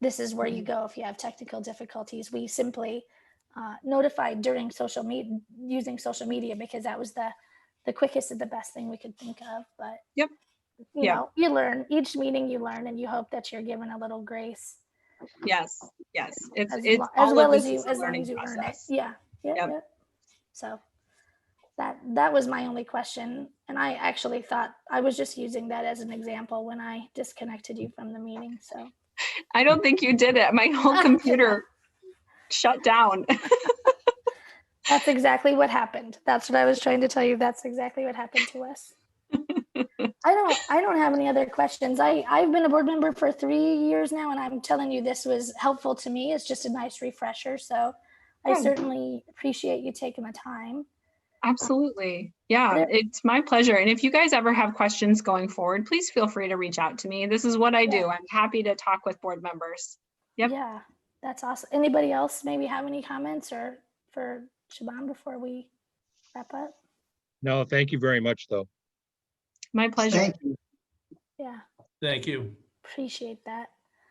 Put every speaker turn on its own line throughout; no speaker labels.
this is where you go if you have technical difficulties. We simply uh, notified during social media using social media because that was the the quickest and the best thing we could think of. But
Yep.
you
Yeah.
know, you learn each meeting. You learn, and you hope that you're given a little grace
Yes, yes. It's,
as,
it's
lo- as
all
well
of
as
this
you
is a
as long
learning
as you earn it.
process.
Yeah. Yep,
Yep.
yep. So that that was my only question, and I actually thought I was just using that as an example when I disconnected you from the meeting. So
I don't think you did it. My whole computer shut down.
that's exactly what happened. That's what I was trying to tell you. That's exactly what happened to us. I don't I don't have any other questions. I I've been a board member for 3 years now and I'm telling you this was helpful to me. It's just a nice refresher. So I
Yeah.
certainly appreciate you taking the time.
Absolutely. Yeah,
Yeah.
it's my pleasure. And if you guys ever have questions going forward, please feel free to reach out to me. This is what I do.
Yeah.
I'm happy to talk with board members. Yep.
Yeah, that's awesome. Anybody else maybe have any comments or for Shaban before we wrap up?
No, thank you very much, though.
My pleasure.
Thank you.
Yeah,
Thank you.
appreciate that.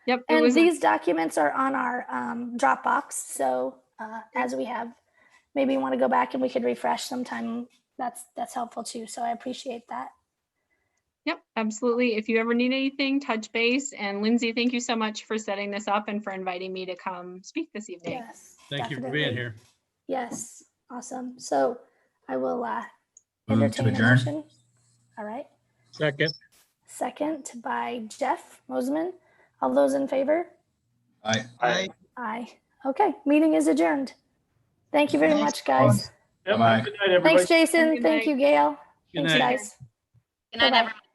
Yep. It
And
was,
these documents are on our um, Dropbox, so uh, as we have, maybe you want to go back and we could refresh sometime. That's, that's helpful too, so I appreciate that.
yep, absolutely. If you ever need anything, touch base. And Lindsay, thank you so much for setting this up and for inviting me to come speak this evening.
Yes.
Thank you for being
definitely.
here.
Yes, awesome. So I will uh,
Move to
entertain a
adjourn.
motion. All right,
Second,
second by Jeff Moseman. All those in favor?
Aye.
Aye.
Aye. Okay, meeting is adjourned. Thank you very
Thanks,
much, guys.
Yep,
Bye-bye.
Good night, everybody.
Thanks, Jason.
Good
Thank
night.
you, Gail.
Good
Thanks,
night.
guys.
Good night,
Bye-bye.
everyone.